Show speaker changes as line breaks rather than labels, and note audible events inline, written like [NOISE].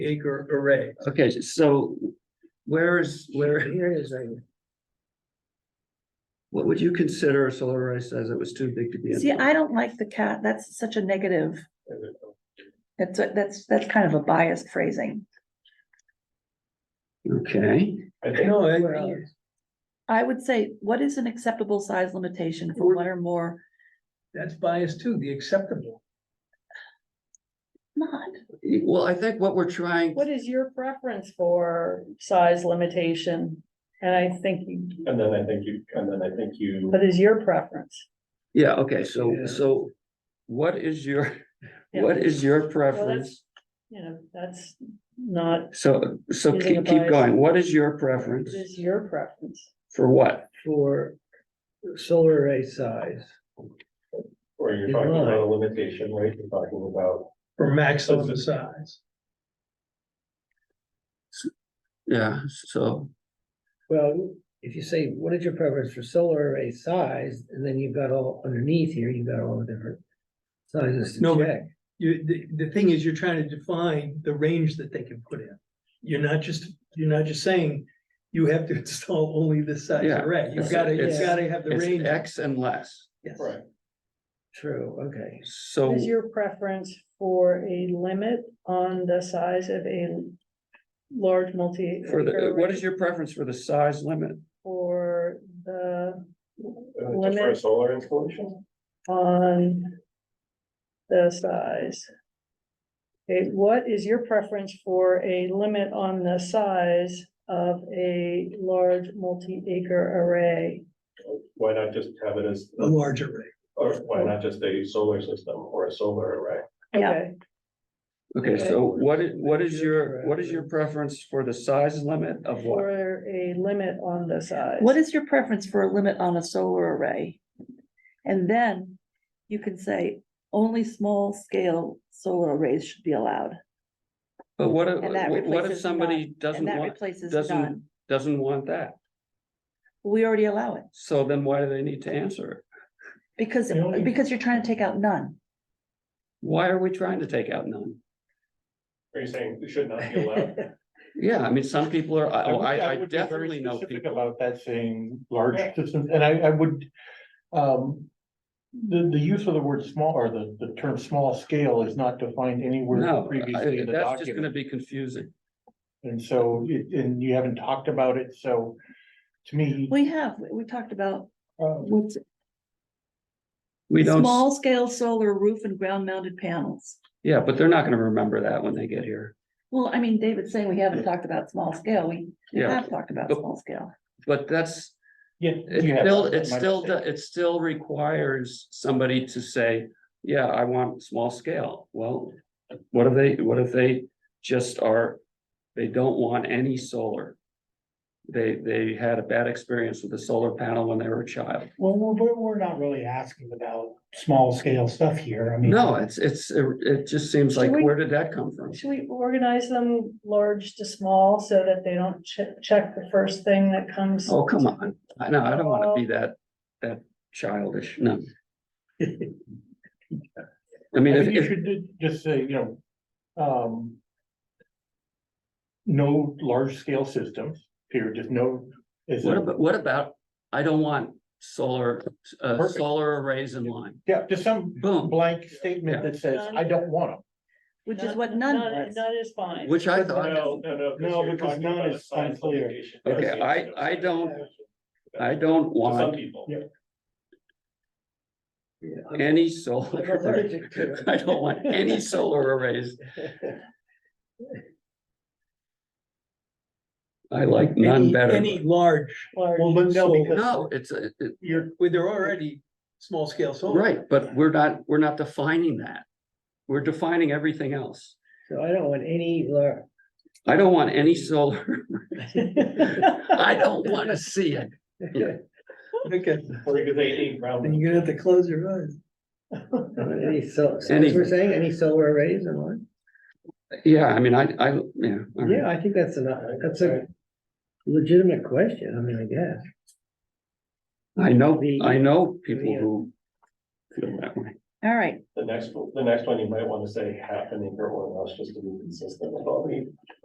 acre array.
Okay, so where is, where,
Here it is right here.
what would you consider a solar array size that was too big to be? in?
See, I don't like the cat, that's such a negative. That's, a- that's, that's kind of a biased phrasing.
Okay,
No, I uh,
Where
think
else? I would say, what is an acceptable size limitation for one or more?
that's biased too, the acceptable.
Not,
well, I think what we're trying,
What is your preference for size limitation? And I think, you-
And then I think you, and then I think you,
what is your preference?
yeah, okay, so,
Yeah.
so what is your,
Yeah.
what is your preference?
You know, that's not,
So, so
Using a
keep, keep
bias.
going. What is your
what
preference
is your preference?
for what?
For solar array size,
or you're
You're
talking about
right.
a limitation, right? You're talking about.
for maximum size.
Yeah, so,
Well, if you say, what is your preference for solar array size, and then you've got all underneath here, you've got all the different. Sizes
No,
to
but-
check,
You, the, the thing is, you're trying to define the range that they can put in. You're not just, you're not just saying you have to [LAUGHS] install only this size
Yeah,
array. You've
it's-
gotta, you've
it's-
gotta have the range.
it's X and less,
Yes.
true, okay.
so.
What is your preference for a limit on the size of a large multi?
For the, what is your preference for the size limit?
For the,
Uh, Just for a
Limit.
solar installation?
on the size? Okay, what is your preference for a limit on the size of a large multi-acre array?
Why not just have it as,
A large array.
or why not just a solar system or a solar array?
Yeah.
Okay,
Okay,
Okay.
so what is, what is your, what is your preference for the size limit of what?
For a limit on the size.
what is your preference for a limit on a solar array? And then you can say, only small scale solar arrays should be allowed.
But what if,
And that
what- what if
replaces
somebody
none,
doesn't
And that
want,
replaces
doesn't-
none.
doesn't want that?
We already allow it,
So then why do they need to answer? it?
because,
The only-
because you're trying to take out none.
Why are we trying to take out none?
Are you saying it should not be allowed?
Yeah, I mean, some people are, I-
I
oh,
would-
I, I
would be very
definitely know
specific
people.
About that saying large systems, and I, I would, um. The, the use of the word small or the, the term small scale is not defined anywhere
No,
previously
I-
in the
that's just gonna
document.
be confusing.
And so, it- and you haven't talked about it, so to me.
We have, we- we talked about
uh,
what's
We don't, s-
small scale solar roof and ground mounted panels.
yeah, but they're not gonna remember that when they get here.
Well, I mean, David's saying we haven't talked about small scale. We we
Yeah.
have talked about
But-
small scale.
But that's,
Yeah.
it
you have
still,
that,
it
my
still,
mistake.
do- it still requires somebody to say, yeah, I want small scale. Well, what if they, what if they just are, they don't want any solar? They, they had a bad experience with a solar panel when they were a child.
Well, we're, we're, we're not really asking about small scale stuff here, I
Hmm.
mean.
No, it's, it's, it just seems like,
Should we-
where did that come from?
Should we organize them large to small so that they don't che- check the first thing that comes?
Oh, come on. I know, I don't wanna
Oh.
be that, that childish,
[LAUGHS]
no. I mean,
I
if,
think you
if,
should ju- just say, you know, um. No large
[LAUGHS]
scale systems, period, just no. is
what
a-
about, what about, I don't want solar, uh,
Perfect.
solar arrays in line.
Yeah, just some
Boom,
blank statement that says, I don't want them.
Which is what none was.
None is fine.
which I thought,
No, no, no.
No,
you're
because
talking
none
about a
is
size
unclear.
limitation.
Okay,
That's the
I-
issue.
I don't-
To
I don't
Some
want
people.
Yeah.
any
[LAUGHS]
solar. [LAUGHS] I don't want any solar arrays. I like none
Any,
better.
any large,
Large.
Well, but no,
but-
because
No, it's, a- it,
you're,
where they're already small scale solar.
right, but we're not, we're not defining that. We're defining everything else.
So I don't want any
[LAUGHS]
lar-
I don't want any solar. [LAUGHS] I don't wanna see it.
Okay,
Or you could say eight round.
then you're gonna have to close your eyes.
any so, so
Any-
as we're saying, any solar arrays or what?
Yeah, I mean, I, I, yeah. all right.
Yeah, I think that's a, that's a legitimate question, I mean, I guess.
I know,
The-
I know people
the, uh,
who feel that way.
all right,
The next, the next one, you might want to say half an acre or less, just to be consistent with all the